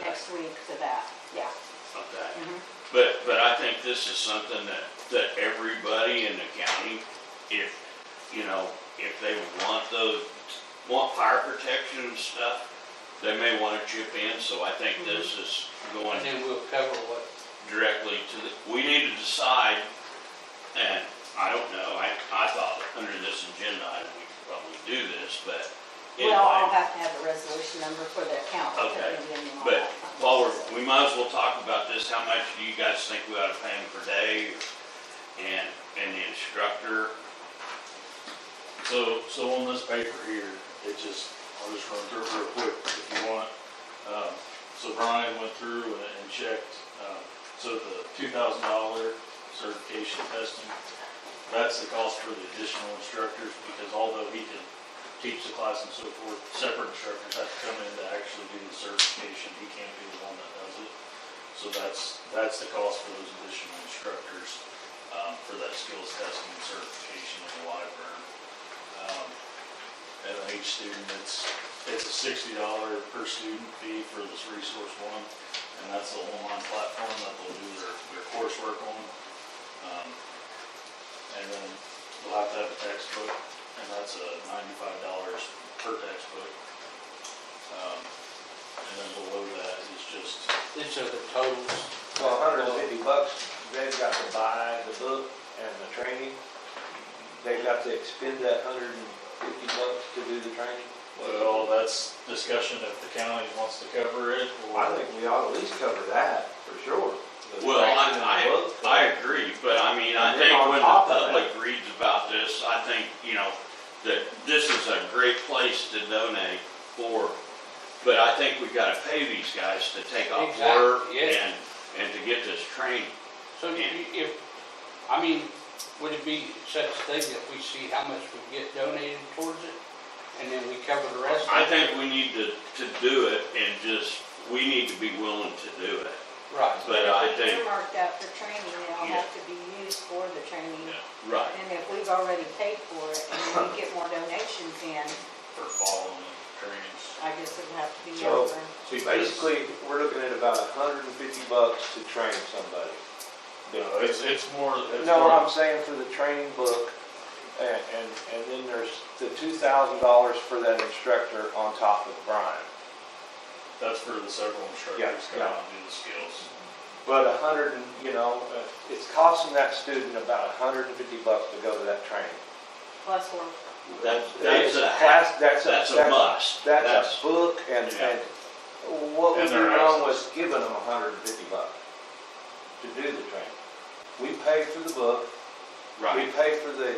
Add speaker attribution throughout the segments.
Speaker 1: next week to that, yeah.
Speaker 2: Okay.
Speaker 1: Mhm.
Speaker 2: But, but I think this is something that, that everybody in the county, if, you know, if they want those, want fire protection and stuff, they may wanna chip in, so I think this is going
Speaker 3: And then we'll cover what,
Speaker 2: directly to the, we need to decide, and I don't know, I, I thought under this agenda item, we could probably do this, but
Speaker 1: Well, I'll
Speaker 2: anyway.
Speaker 1: have to have the resolution number for the account. that
Speaker 2: Okay,
Speaker 1: we did and all
Speaker 2: But
Speaker 1: that fun
Speaker 2: while
Speaker 1: stuff.
Speaker 2: we're, we might as well talk about this, how much do you guys think we ought to pay him per day? And, and the instructor,
Speaker 4: So, so on this paper here, it just, I'll just run through it real quick if you want. Um, So Brian went through and and checked, um, so the two thousand dollar certification testing, that's the cost for the additional instructors, because although he can teach the class and so forth, separate instructors have to come in to actually do the certification, he can't be the one that does it. So that's, that's the cost for those additional instructors, um, for that skills testing and certification in the library. Um, And then each student, it's, it's a sixty dollar per student fee for this resource one, and that's the online platform that they'll do their, their coursework on. Um, And then they'll have to have a textbook, and that's a ninety-five dollars per textbook. Um, And then below that is just,
Speaker 3: these are the totals.
Speaker 5: So a hundred and fifty bucks, they've got to buy the book and the training. They've got to expend that hundred and fifty bucks to do the training.
Speaker 4: well, that's discussion if the county wants to cover it, or.
Speaker 5: I think we ought to at least cover that, for sure. The
Speaker 2: well, I,
Speaker 5: training and the
Speaker 2: I,
Speaker 5: book.
Speaker 2: I agree, but I mean, I
Speaker 5: And then
Speaker 2: think
Speaker 5: on
Speaker 2: when
Speaker 5: top
Speaker 2: the
Speaker 5: of that-
Speaker 2: public reads about this, I think, you know, that this is a great place to donate for, but I think we gotta pay these guys to take off
Speaker 3: Exactly,
Speaker 2: work
Speaker 3: yes.
Speaker 2: and, and to get this training.
Speaker 3: So you- if, I mean, would it be such a thing that we see how much we get donated towards it? And then we cover the rest? of
Speaker 2: I
Speaker 3: it?
Speaker 2: think we need to, to do it and just, we need to be willing to do it.
Speaker 3: Right.
Speaker 2: But I
Speaker 1: If we
Speaker 2: think,
Speaker 1: earmarked that for training, it'll
Speaker 2: Yeah.
Speaker 1: have to be used for the training.
Speaker 2: right,
Speaker 1: And if we've already paid for it and we get more donations in,
Speaker 4: For following trainings.
Speaker 1: I guess it'll have to be
Speaker 5: So-
Speaker 1: over.
Speaker 5: So basically, we're looking at about a hundred and fifty bucks to train somebody.
Speaker 4: No, it's, it's more, it's
Speaker 5: No,
Speaker 4: more,
Speaker 5: I'm saying for the training book, and, and, and then there's the two thousand dollars for that instructor on top of Brian.
Speaker 4: that's for the several
Speaker 5: Yeah,
Speaker 4: instructors coming
Speaker 5: yeah.
Speaker 4: out and do the skills.
Speaker 5: But a hundred, and you know, uh, it's costing that student about a hundred and fifty bucks to go to that training.
Speaker 1: Plus, we're
Speaker 2: that's, that's
Speaker 5: It's
Speaker 2: a,
Speaker 5: class- That's a,
Speaker 2: that's a
Speaker 5: that's a,
Speaker 2: must.
Speaker 5: that's a book, and,
Speaker 2: Yeah.
Speaker 5: and what would
Speaker 4: And
Speaker 5: be
Speaker 4: they're
Speaker 5: wrong with giving them a hundred and fifty bucks to do the training? We pay for the book, we
Speaker 2: Right,
Speaker 5: pay for the,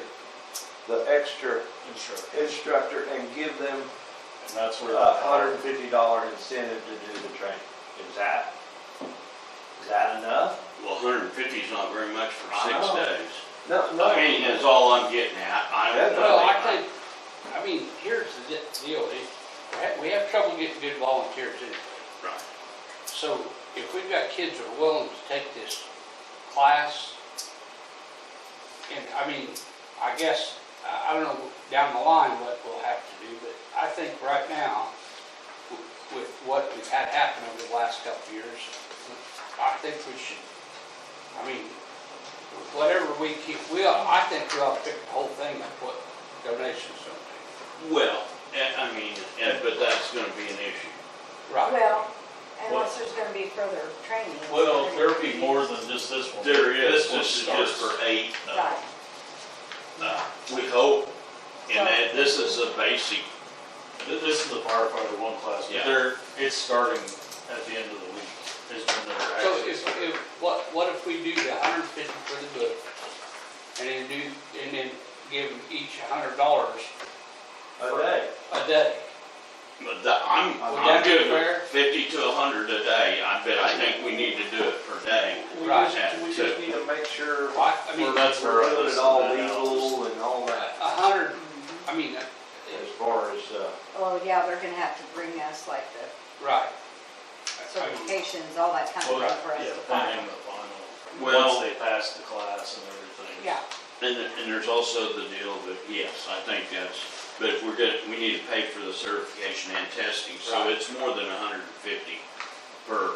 Speaker 5: the extra
Speaker 4: Instructor.
Speaker 5: instructor, and give them
Speaker 4: And that's where.
Speaker 5: a hundred and fifty dollar incentive to do the training. Is that, is that enough?
Speaker 2: well, hundred and fifty is not very much for
Speaker 5: I
Speaker 2: six
Speaker 5: know.
Speaker 2: days.
Speaker 5: No, no.
Speaker 2: I mean, that's all I'm getting at, I don't
Speaker 5: That's-
Speaker 2: know.
Speaker 3: Well, I think, I mean, here's the di- deal, is we have- we have trouble getting good volunteers in.
Speaker 2: Right.
Speaker 3: So if we've got kids that are willing to take this class, and I mean, I guess, I I don't know down the line what we'll have to do, but I think right now, w- with what we've had happen over the last couple of years, I think we should, I mean, whatever we keep, we, ought- I think we ought to pick the whole thing and put donations something.
Speaker 2: Well, eh, I mean, eh, but that's gonna be an issue.
Speaker 3: Right.
Speaker 1: Well, unless there's gonna be further training.
Speaker 4: Well, there'll be more than just this one.
Speaker 2: There is,
Speaker 4: This one
Speaker 2: this is just
Speaker 4: starts.
Speaker 2: for eight, uh,
Speaker 1: Right,
Speaker 2: uh, we hope, and that, this is a basic,
Speaker 4: Th- This is the firefighter one class,
Speaker 2: Yeah.
Speaker 4: but they're, it's starting at the end of the week, is when they're
Speaker 3: So
Speaker 4: actually.
Speaker 3: if, if, what, what if we do the hundred fifty for the book, and then do, and then give them each a hundred dollars
Speaker 5: A day.
Speaker 3: a day?
Speaker 2: but that, I'm,
Speaker 3: Would
Speaker 2: I'm
Speaker 3: that be
Speaker 2: giving
Speaker 3: fair?
Speaker 2: fifty to a hundred a day, I bet, I think we need to do it per day.
Speaker 5: We
Speaker 3: Right.
Speaker 5: just, we just need to make sure
Speaker 3: I, I mean, a
Speaker 4: Well, that's where
Speaker 5: we're
Speaker 4: I
Speaker 5: doing it
Speaker 4: listed
Speaker 5: all
Speaker 4: that out.
Speaker 5: legal and all that,
Speaker 3: hundred, I mean, uh,
Speaker 5: as far as, uh,
Speaker 1: well, yeah, they're gonna have to bring us like the
Speaker 3: right. I mean,
Speaker 1: certifications, all that kind of
Speaker 4: Well,
Speaker 1: stuff for us
Speaker 4: yeah,
Speaker 1: to
Speaker 4: planning
Speaker 1: find.
Speaker 4: the final,
Speaker 2: Well-
Speaker 4: once they pass the class and everything.
Speaker 1: Yeah,
Speaker 2: And, th- and there's also the deal that, yes, I think that's, but if we're gonna, we need to pay for the certification and testing, so
Speaker 3: Right.
Speaker 2: it's more than a hundred and fifty per